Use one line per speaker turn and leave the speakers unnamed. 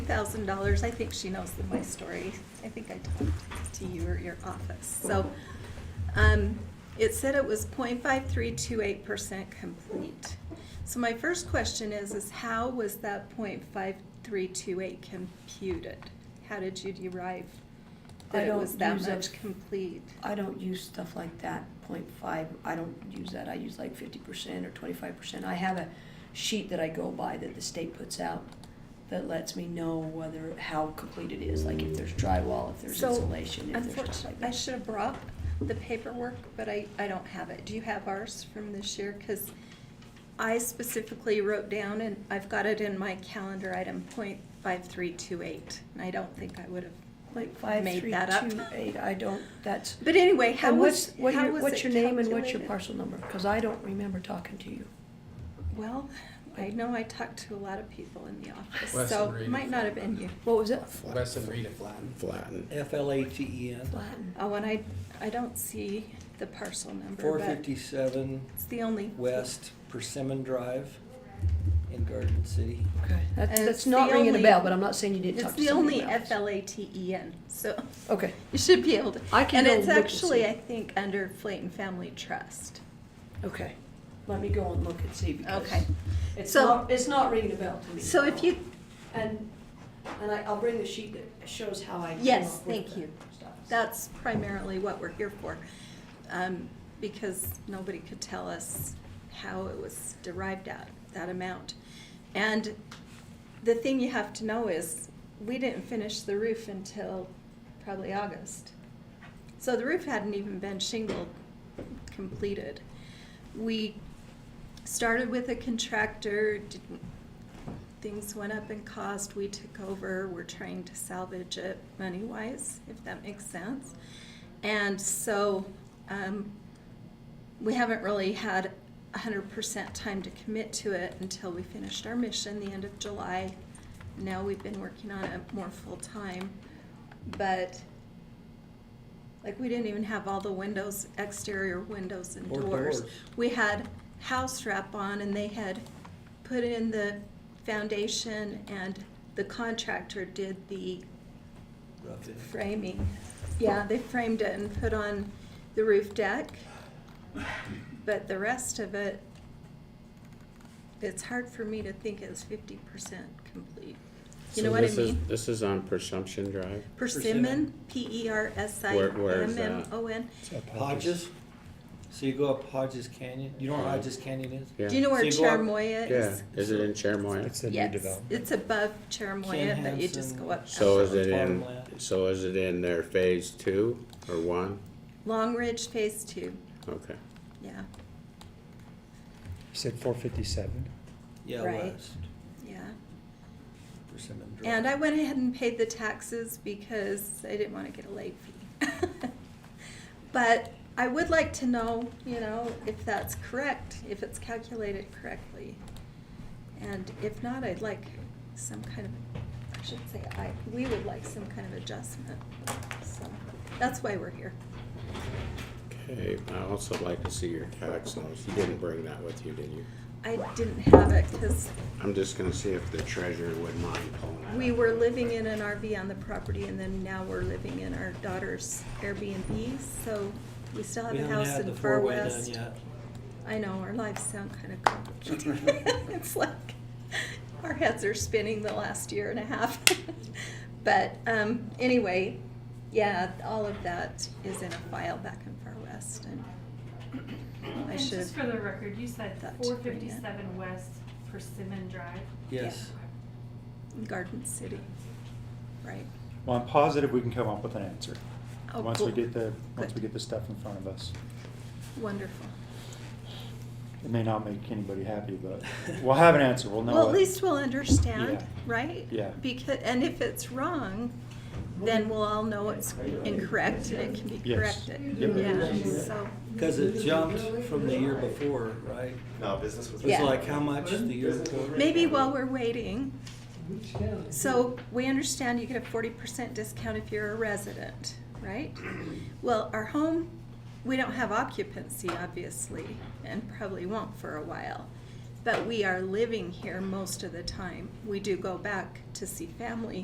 thousand dollars, I think she knows the- my story. I think I talked to you or your office. So, um, it said it was 0.5328 percent complete. So my first question is, is how was that 0.5328 computed? How did you derive
I
that it
don't
was that
use a-
much complete?
I don't use stuff like that, point five, I don't use that, I use like fifty percent or twenty-five percent. I have a sheet that I go by that the state puts out that lets me know whether, how complete it is, like if there's drywall, if there's
So,
insulation, if there's stuff like
Unfortunately, I
that.
should have brought the paperwork, but I, I don't have it. Do you have ours from this year? Because I specifically wrote down, and I've got it in my calendar item, point five three two eight, and I don't think I would
Point
have
five,
made
three,
that up.
two, eight, I don't, that's.
But anyway, how
And what's-
was, how
what
was it
your- What's your name and what's your
calculated?
parcel number? Cause I don't remember talking to you.
Well, I know I talked to a lot of people in the office,
Wes
so
and Rita.
it might not have been you.
What was it?
Wes and Rita Flatten.
Flatten.
F L A T E N,
Latin.
Oh, and I, I don't see the parcel number,
four
but
fifty-seven
it's the only.
West Persimmon Drive in Garden City.
Okay, that's,
And
that's
it's
not
the
ringing a
only-
bell, but I'm not saying you didn't
It's
talk to
the
somebody
only
about it.
F L A T E N, so
Okay,
you should be able to.
I can
And
go
it's
look and see.
actually, I think, under Flayton Family Trust.
okay. Let me go and look and see because.
Okay.
It's
So-
not, it's not ringing a bell to me.
So if you,
And, and I, I'll bring the sheet that shows how I. came
Yes,
up with
thank
the
you.
stuff.
that's primarily what we're here for, um, because nobody could tell us how it was derived at, that amount. And the thing you have to know is, we didn't finish the roof until probably August. So the roof hadn't even been shingled, completed. We started with a contractor, didn't, things went up in cost, we took over, we're trying to salvage it money-wise, if that makes sense. And so, um, we haven't really had hundred percent time to commit to it until we finished our mission the end of July. Now we've been working on it more full-time, but like we didn't even have all the windows, exterior windows and
Or
doors.
doors.
We had house wrap on and they had put in the foundation and the contractor did the
Rough it.
framing. Yeah, they framed it and put on the roof deck. But the rest of it, it's hard for me to think it's fifty percent complete. You
So
know what I
this is-
mean?
This is on Presumption Drive.
Persimmon, P E R S I
Where- where is
M M
that?
O N.
Hodges, so you go up Hodges Canyon, you know where Hodges Canyon is?
Yeah.
Do you know where
So you go up-
Cherimoya
Yeah,
is?
is it in Chermoya?
It's a new
Yes,
development.
it's above Cherimoya,
Ken
but you just
Hansen.
go up.
So is it
Bottom
in,
left.
so is it in their phase two or one?
Long Ridge Phase Two,
Okay.
yeah,
You said four fifty-seven.
Yeah,
Right.
West
yeah.
Persimmon Drive.
And I went ahead and paid the taxes because I didn't want to get a late fee. But I would like to know, you know, if that's correct, if it's calculated correctly. And if not, I'd like some kind of, I should say, I, we would like some kind of adjustment. So That's why we're here.
Okay, I also like to see your tax notes. You didn't bring that with you, did you?
I didn't have it because
I'm just gonna see if the treasurer would mind pulling that.
we
up.
were living in an RV on the property and then now we're living in our daughter's Airbnb. So we still have
We
a
haven't
house
had the
in Far
four-way done
West.
yet.
I know, our lives sound kind of complicated. it's like our heads are spinning the last year and a half. but um, anyway, yeah, all of that is in a file back in Far West. And I
And
should
just for
have.
the record, you said
thought to
four
bring it.
fifty-seven West Persimmon Drive?
Yes.
Garden City. Right.
Well, I'm positive we can come up with an answer.
Oh,
Once we
cool.
get the, once we
Good.
get the stuff in front of us.
Wonderful.
It may not make anybody happy, but we'll have an answer. We'll know.
well, at
it.
least we'll understand,
Yeah.
right?
Yeah.
Because and if it's wrong, then we'll all know it's incorrect and it can be
Yes.
corrected.
Yep.
Yeah. So
Cause it jumped from the year before, right?
No, business was.
Yeah.
It's like how much the year before?
Maybe while we're waiting, so we understand you get a forty percent discount if you're a resident, right? Well, our home, we don't have occupancy, obviously, and probably won't for a while. But we are living here most of the time. We do go back to see family